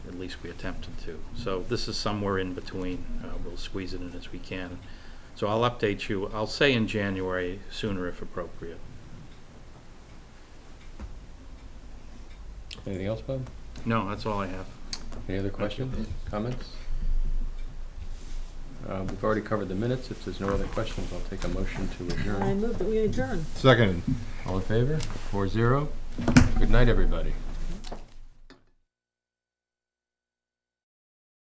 at least we attempted to. So this is somewhere in between. Uh, We'll squeeze it in as we can. So I'll update you, I'll say in January, sooner if appropriate. Anything else, Bob? No, that's all I have. Any other questions, comments? Uh, We've already covered the minutes. If there's no other questions, I'll take a motion to I adjourn. move that we adjourn. Second. All in favor? Four zero. Good night, everybody.